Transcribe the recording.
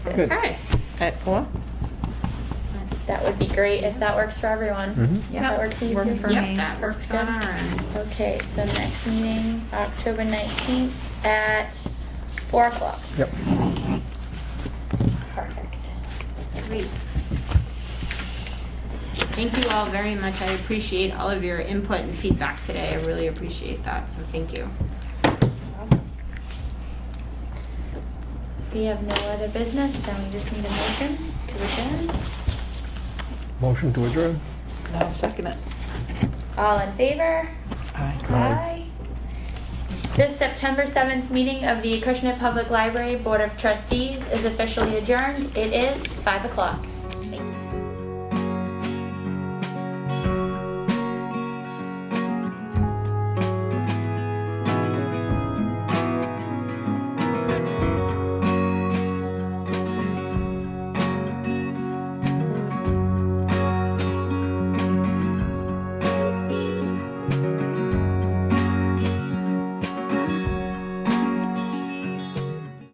Good. Okay. At four? That's- That would be great if that works for everyone. Mhm. If that works for you Works too. for me. Yep, that works on our end. Okay, so next meeting, October nineteenth at four o'clock. Yep. Perfect. Great. Thank you all very much. I appreciate all of your input and feedback today. I really appreciate that, so thank you. We have no other business, then we just need a motion to adjourn. Motion to adjourn? I'll second it. All in favor? Aye. This September seventh meeting of the Acushnet Public Library Board of Trustees is officially adjourned. It is five o'clock.